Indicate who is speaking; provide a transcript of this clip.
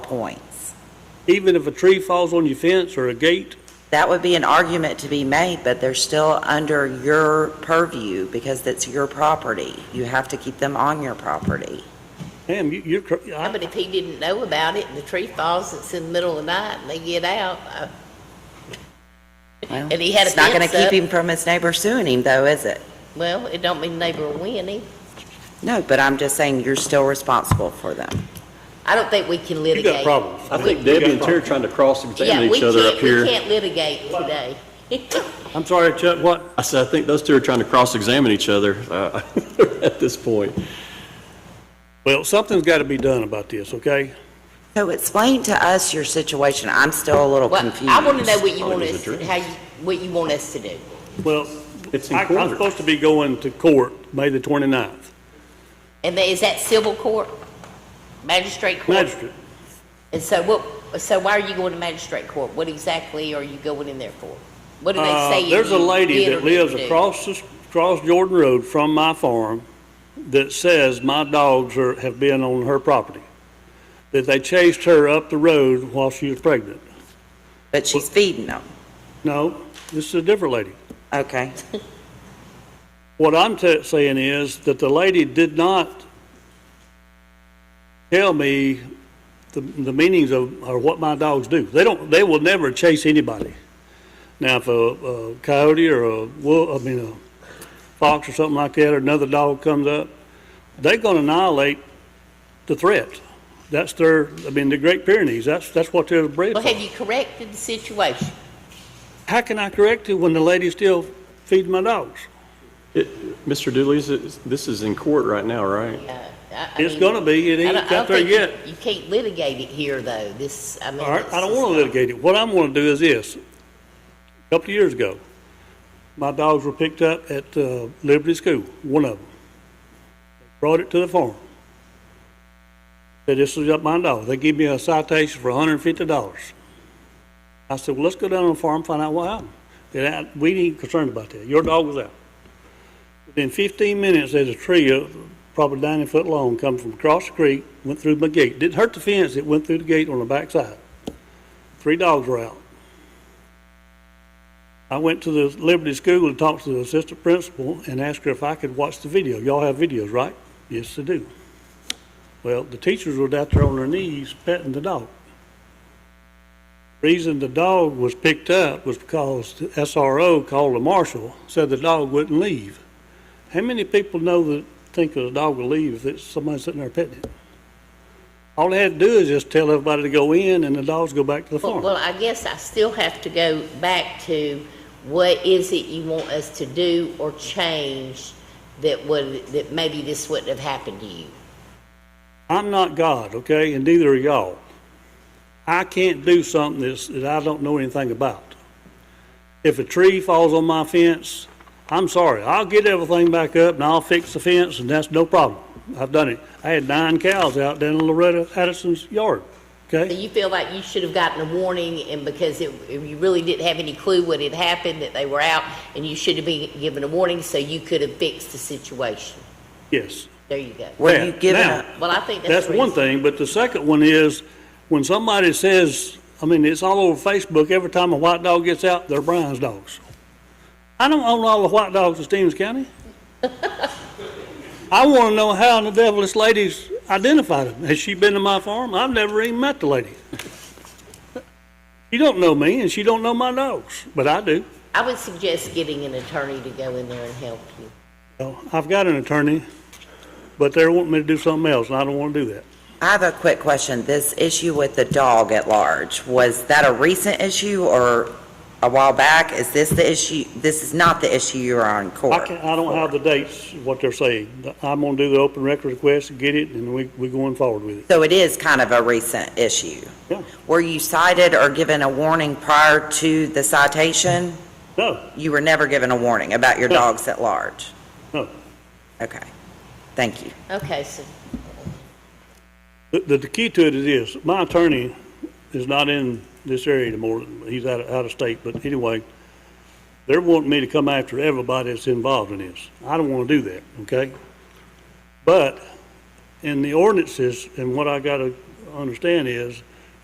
Speaker 1: points.
Speaker 2: Even if a tree falls on your fence or a gate,
Speaker 1: That would be an argument to be made, but they're still under your purview because that's your property. You have to keep them on your property.
Speaker 2: damn, you- you're, cr-
Speaker 3: Yeah,
Speaker 2: I-
Speaker 3: But if he didn't know about it, and the tree falls, it's in the middle of the night, and they get out, uh,
Speaker 1: Well,
Speaker 3: And he had a
Speaker 1: It's not going
Speaker 3: fence
Speaker 1: to
Speaker 3: up.
Speaker 1: keep him from his neighbor suing him, though, is it?
Speaker 3: well, it don't mean neighbor will win either.
Speaker 1: No, but I'm just saying you're still responsible for them.
Speaker 3: I don't think we can
Speaker 2: you got
Speaker 3: litigate.
Speaker 2: problems.
Speaker 4: I think
Speaker 2: You
Speaker 4: Debbie
Speaker 2: got
Speaker 4: and Terry are trying to cross-examine
Speaker 3: Yeah, we
Speaker 4: each other up
Speaker 3: can't, we
Speaker 4: here.
Speaker 3: can't litigate today.
Speaker 2: problems. I'm sorry, Chuck, what?
Speaker 4: I said, I think those two are trying to cross-examine each other uh, at this point.
Speaker 2: Well, something's got to be done about this, okay?
Speaker 1: So explain to us your situation. I'm still a little
Speaker 3: Well,
Speaker 1: confused.
Speaker 3: I want to know what you
Speaker 4: Probably
Speaker 3: want
Speaker 4: was
Speaker 3: us,
Speaker 4: a
Speaker 3: to-
Speaker 4: dream.
Speaker 3: how you, what you want us to do.
Speaker 2: Well,
Speaker 4: It's in
Speaker 2: I- I'm
Speaker 4: court.
Speaker 2: supposed to be going to court May the 29th.
Speaker 3: And then, is that civil court? Magistrate court?
Speaker 2: Magistrate,
Speaker 3: And so what, so why are you going to magistrate court? What exactly are you going in there for? What do they
Speaker 2: Uh,
Speaker 3: say?
Speaker 2: There's a
Speaker 3: you
Speaker 2: lady
Speaker 3: did or
Speaker 2: that
Speaker 3: didn't
Speaker 2: lives
Speaker 3: do?
Speaker 2: across, the- across Jordan Road from my farm that says my dogs are, have been on her property, that they chased her up the road while she was pregnant.
Speaker 1: But she's feeding them.
Speaker 2: No, this is a different lady.
Speaker 1: Okay.
Speaker 2: What I'm t- saying is that the lady did not tell me the, the meanings of, or what my dogs do. They don't, they will never chase anybody. Now, if a, a coyote or a wolf, I mean, a fox or something like that, or another dog comes up, they're gonna annihilate the threat. That's their, I mean, the Great Pyrenees, that's, that's what they're bred
Speaker 3: Well,
Speaker 2: for.
Speaker 3: have you corrected the situation?
Speaker 2: How can I correct it when the lady's still feeding my dogs?
Speaker 4: It- Mr. Dooley, is it- this is in court right now, right?
Speaker 3: Uh, I- I
Speaker 2: It's
Speaker 3: mean,
Speaker 2: gonna be, it
Speaker 3: I
Speaker 2: ain't
Speaker 3: don't-
Speaker 2: got
Speaker 3: I don't
Speaker 2: there
Speaker 3: think you-
Speaker 2: yet.
Speaker 3: You can't litigate it here, though. This, I mean.
Speaker 2: All right, I
Speaker 3: this
Speaker 2: don't
Speaker 3: is
Speaker 2: want to
Speaker 3: not-
Speaker 2: litigate it. What I'm going to do is this. A couple of years ago, my dogs were picked up at uh, Liberty School, one of them. Brought it to the farm. Said, this is up my dog. They give me a citation for $150. I said, well, let's go down on the farm and find out what happened. They said, "Ah, we ain't concerned about that. Your dog was out. Within 15 minutes, there's a tree, uh, probably 90 foot long, come from across the creek, went through my gate. Didn't hurt the fence, it went through the gate on the backside. Three dogs were out. I went to the Liberty School and talked to the assistant principal and asked her if I could watch the video. Y'all have videos, right? Yes, they do. Well, the teachers were out there on their knees petting the dog. Reason the dog was picked up was because the SRO called the marshal, said the dog wouldn't leave. How many people know that think that a dog will leave if it's somebody sitting there petting it? All they had to do is just tell everybody to go in and the dogs go back to the
Speaker 3: Well,
Speaker 2: farm.
Speaker 3: well, I guess I still have to go back to what is it you want us to do or change that would, that maybe this wouldn't have happened to you?
Speaker 2: I'm not God, okay, and neither are y'all. I can't do something that's, that I don't know anything about. If a tree falls on my fence, I'm sorry, I'll get everything back up and I'll fix the fence and that's no problem. I've done it. I had nine cows out down in Loretta Addison's yard,
Speaker 3: So
Speaker 2: okay?
Speaker 3: you feel like you should have gotten a warning and because it, you really didn't have any clue what had happened, that they were out, and you should have been given a warning so you could have fixed the situation.
Speaker 2: Yes.
Speaker 3: There you go.
Speaker 1: Were you
Speaker 2: Now-
Speaker 1: giving
Speaker 2: now,
Speaker 1: up?
Speaker 3: Well, I think that's.
Speaker 2: That's one
Speaker 3: reasonable.
Speaker 2: thing, but the second one is, when somebody says, I mean, it's all over Facebook, every time a white dog gets out, they're Brian's dogs. I don't own all the white dogs in Stevens County. I want to know how in the devil this lady's identified them. Has she been to my farm? I've never even met the lady. She don't know me, and she don't know my dogs, but I do.
Speaker 3: I would suggest getting an attorney to go in there and help you.
Speaker 2: So, I've got an attorney, but they're wanting me to do something else, and I don't want to do that.
Speaker 1: I have a quick question. This issue with the dog at large, was that a recent issue or a while back? Is this the issue, this is not the issue you're on
Speaker 2: I
Speaker 1: court?
Speaker 2: can't, I don't have the dates, what they're saying. I'm gonna do the open record request, and get it, and we, we going forward with it.
Speaker 1: So it is kind of a recent issue?
Speaker 2: Yeah.
Speaker 1: Were you cited or given a warning prior to the citation?
Speaker 2: No,
Speaker 1: You were never given a warning about your
Speaker 2: No.
Speaker 1: dogs at large?
Speaker 2: no.
Speaker 1: Okay, thank you.
Speaker 3: Okay, so
Speaker 2: The, the key to it is this, my attorney is not in this area anymore, he's out of, out of state, but anyway, they're wanting me to come after everybody that's involved in this. I don't wanna do that, okay? But in the ordinances, and what I gotta understand is,